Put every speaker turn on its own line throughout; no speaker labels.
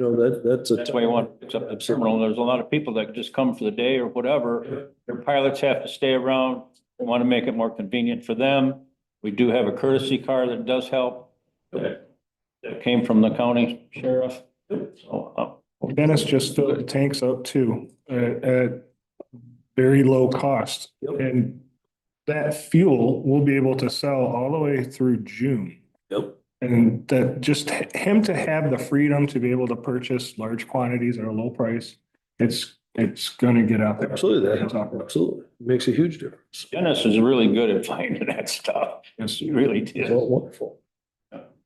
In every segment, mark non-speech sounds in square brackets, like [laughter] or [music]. know, that, that's a.
That's why you want to fix up the terminal. There's a lot of people that just come for the day or whatever. Their pilots have to stay around. We want to make it more convenient for them. We do have a courtesy car that does help.
Okay.
That came from the county sheriff. So, uh,
Dennis just filled the tanks up too, uh, at very low cost.
Yep.
And that fuel we'll be able to sell all the way through June.
Yep.
And that just h- him to have the freedom to be able to purchase large quantities at a low price, it's, it's gonna get out there.
Absolutely, that, absolutely, makes a huge difference.
Dennis is really good at [laughs] finding that stuff.
Yes.
He really
It's
did.
all wonderful.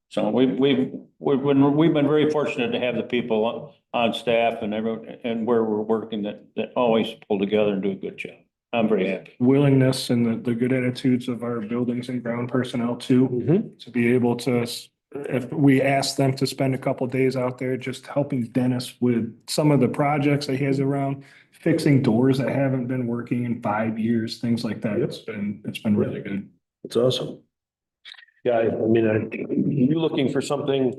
So we've, we've, we've been, we've been very fortunate to have the people on- on staff and everyone, and where we're working that, that always pull together and do a good job. I'm very happy.
Willingness and the, the good attitudes of our buildings and ground personnel too,
Mhm.
to be able to, s- if we ask them to spend a couple days out there just helping Dennis with some of the projects that he has around, fixing doors that haven't been working in five years, things like that. It's been, it's been really good.
It's awesome. Yeah, I, I mean, I, you looking for something,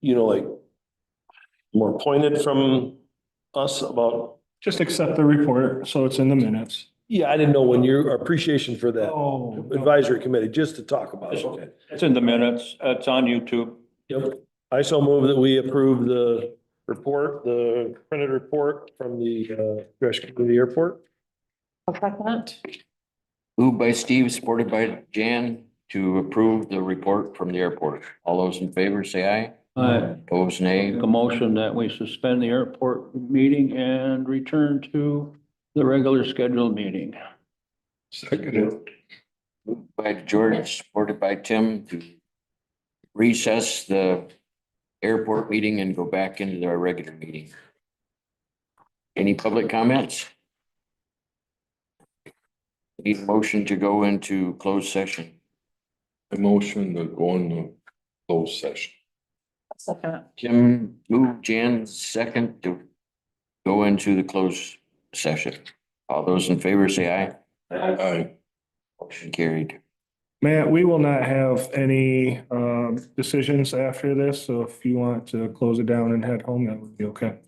you know, like more pointed from us about,
Just accept the report, so it's in the minutes.
yeah, I didn't know when your appreciation for that
Oh.
advisory committee, just to talk about it. Okay.
It's in the minutes. It's on YouTube.
Yep. I so move that we approve the report, the printed report from the, uh, Gresham Community Airport.
I'll second that.
Moved by Steve, supported by Jan, to approve the report from the airport. All those in favor, say aye.
I
Opposed, nay.
make a motion that we suspend the airport meeting and return to the regular scheduled meeting.
Second.
Moved By George, supported by Tim, to recess the airport meeting and go back into our regular meeting. Any public comments? Need a motion to go into closed session.
A motion to go into closed session.
I'll second that.
Tim moved Jan second to go into the closed session. All those in favor say aye.
Aye.
Motion carried.
Matt, we will not have any uh, um, decisions after this, so if you want to close it down and head home, that would be okay.